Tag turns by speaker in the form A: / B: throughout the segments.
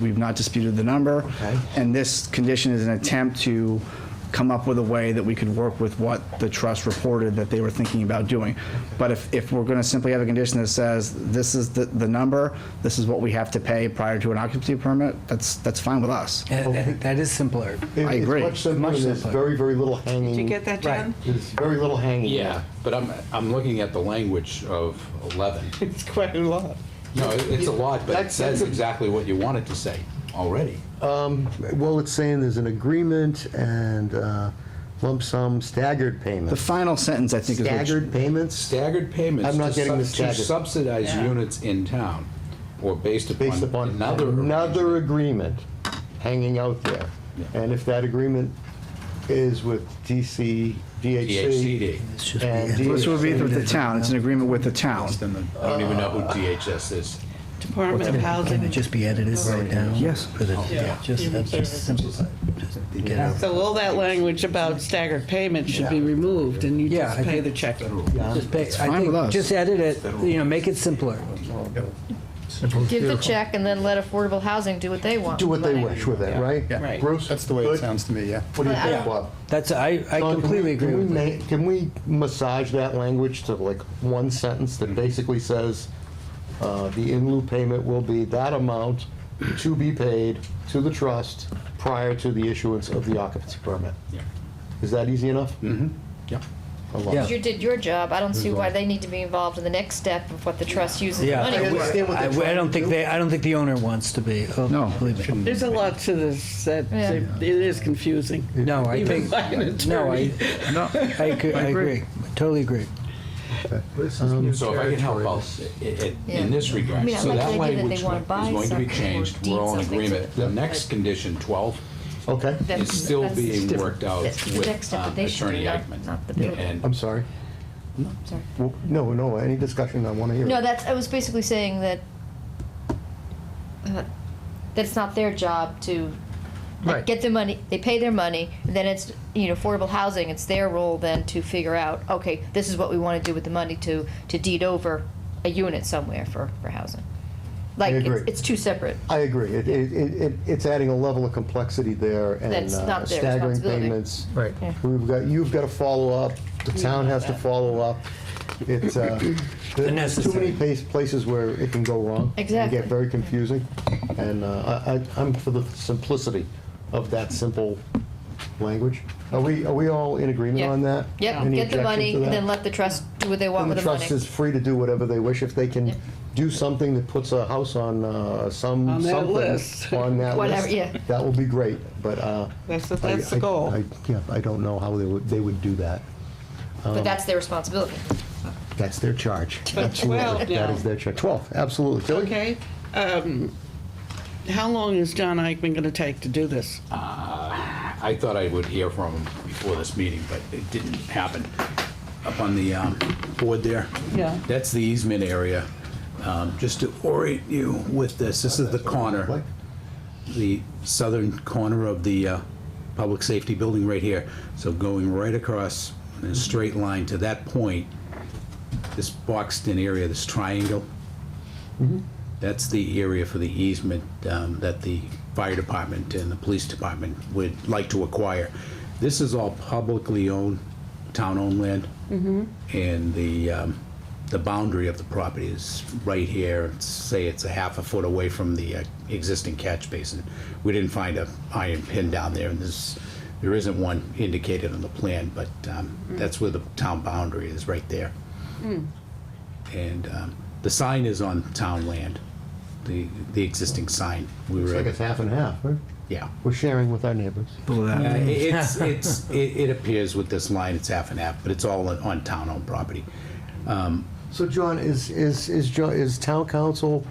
A: We've not disputed the number.
B: Okay.
A: And this condition is an attempt to come up with a way that we could work with what the trust reported that they were thinking about doing. But if, if we're going to simply have a condition that says, this is the, the number, this is what we have to pay prior to an occupancy permit, that's, that's fine with us.
C: That- that- That is simpler.
B: It-
A: I agree.
B: It's much simpler,
C: Much
B: and there's
C: simpler.
B: very, very little hanging.
D: Did you get that,
C: Right.
D: John?
B: There's very little hanging.
E: Yeah, but I'm, I'm looking at the language of 11.
B: It's quite a lot.
E: No, it- it's a lot, but it
B: That's- that's
E: says
B: a-
E: exactly what you want it to say already.
B: Well, it's saying there's an agreement and uh, lump sum staggered
A: The
B: payments.
A: final sentence, I think, is what
B: Staggered payments
E: Staggered payments.
B: I'm not
E: to
B: getting
E: sub-
B: the
E: To
B: staggered.
E: subsidize units in town, or based upon
B: based upon
E: another.
B: another
E: arrangement.
B: agreement hanging out there.
E: Yeah.
B: And if that agreement is with DC, DHC.
E: DHCD.
C: It's just-
B: and
C: yeah.
A: This would be
B: DHC.
A: with the town, it's an agreement with the town.
E: Then the- I don't even know who DHS is.
D: Department of
C: Can it
D: Housing.
C: just be edited right now?
A: Yes.
C: For the, yeah, just, that's just simplified. Just get out.
D: So all that language about staggered payments should be removed, and you
C: Yeah,
D: just
C: I
D: pay
C: think-
D: the check.
C: Just pay- I
A: fine
C: think
A: with us.
C: Just edit it, you know, make it simpler.
F: Give the check and then let affordable housing do what they want.
B: Do what
F: with
B: they
F: the money.
B: wish with it, right?
D: Right.
B: Bruce?
G: That's the way
B: Good?
G: it sounds to me, yeah.
B: What do you
F: Yeah.
B: think, Bob?
C: That's, I, I
B: Don, can
C: completely
B: we- can
C: agree
B: we
C: with that.
B: ma- Can we massage that language to like one sentence that basically says, uh, the in lieu payment will be that amount to be paid to the trust prior to the issuance of the occupancy permit?
E: Yeah.
B: Is that easy enough? Mm-hmm.
E: Yeah.
C: Yeah.
F: You did your job. I don't see why they need to be involved in the next step of what the trust uses the
C: Yeah.
F: money
B: I
F: for.
B: understand what
C: I,
B: they're
C: I
B: trying
C: don't
B: to
C: think
B: do.
C: they, I don't think the owner wants to be. Oh,
A: No.
C: Believe me.
D: There's a lot to this, that,
F: Yeah.
D: it is confusing.
C: No, I
D: Even
C: think,
D: by an
C: no, I,
D: attorney.
A: No.
C: I agree, I agree. Totally agree.
E: So if I can help out i- i-
F: Yeah.
E: in this
F: I
E: regard,
F: mean, I
E: so
F: like
E: that
F: the idea that they
E: language is
F: wanna buy
E: going to be
F: something or
E: changed,
F: deed
E: we're all in
F: something to-
E: agreement. The next condition, 12,
B: Okay,
F: That's-
E: is still
F: that's-
E: being worked out
F: That's the next
E: with
F: step
E: um,
F: that they should
E: Attorney
F: do, not-
E: Eichmann.
F: not the building.
E: And
B: I'm sorry.
F: Sorry.
B: Well, No, no, any discussion, I want to hear.
F: No,
B: it.
F: that's, I was basically saying that, uh, that it's not their job to like,
B: Right.
F: get the money, they pay their money, and then it's, you know, affordable housing, it's their role then to figure out, okay, this is what we want to do with the money to, to deed over a unit somewhere for, for housing. Like,
B: agree.
F: it's, it's two separate.
B: I agree. It, it, it, it- it's adding a level of complexity there and
F: That's
B: uh,
F: not their
B: staggering
F: responsibility.
B: payments.
C: Right.
F: Yeah.
B: We've got, you've got to follow up, the town has to follow up. It's, uh, there's too many
C: necessary.
B: pa- places where it can go wrong.
F: Exactly.
B: And get very confusing. And, uh, I, I- I'm for the simplicity of that simple language. Are we, are we all in agreement
F: Yeah.
B: on that?
F: Yep,
B: Any
F: get the
B: objection
F: money,
B: to that?
F: then let the trust do what they want
B: And
F: with
B: the
F: the money.
B: trust is free to do whatever they wish. If they
F: Yeah.
B: can do something that puts a house on uh, some,
D: On that
B: something.
D: list.
B: On that
F: Whatever, yeah.
B: list, that will be great, but. uh,
D: That's, the-
B: I-
D: that's the
B: I-
D: goal.
B: I- Yeah, I don't know how they would, they would do that.
F: But that's their responsibility.
B: That's their charge.
D: But
B: Absolutely.
D: 12
B: That
D: now.
B: is their charge. 12, absolutely. Tilly?
D: Okay, um, how long is John Eichman gonna take to do this?
E: I thought I would hear from him before this meeting, but it didn't happen. Up on the um, board there.
D: Yeah.
E: That's the easement area. Um, Just to orient you with this, this is the corner, the southern corner of the uh, public safety building right here. So going right across in a straight line to that point, this boxed-in area, this triangle, that's the area for the easement um, that the fire department and the police department would like to acquire. This is all publicly owned, town-owned land. And the, um, the boundary of the property is right here, say it's a half a foot away from the uh, existing catch basin. We didn't find a iron pin down there, and there's, there isn't one indicated on the plan, but um, that's where the town boundary is, right there. And um, the sign is on town land, the, the existing sign. We
B: It's
E: were,
B: like it's half and half, right?
E: yeah.
B: We're sharing with our neighbors.
E: Uh, it- It's, it's, it it appears with this line, it's half and half, but it's all on- on town-owned property.
B: So John, is, is, is, Jo- is town council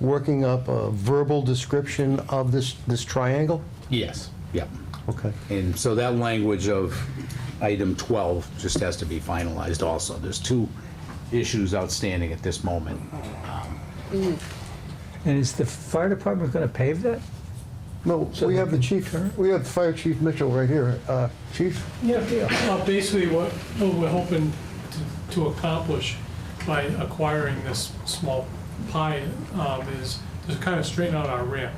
B: working up a verbal description of this, this triangle?
E: Yes. Yep.
B: Okay.
E: And so that language of item 12 just has to be finalized also. There's two issues outstanding at this moment.
H: And is the fire department going to pave that?
B: No, we have the chief, we have Fire Chief Mitchell right here. Uh, Chief?
I: Yeah, well, basically what, what we're hoping to- to accomplish by acquiring this small pie um, is to kind of straighten out our ramp.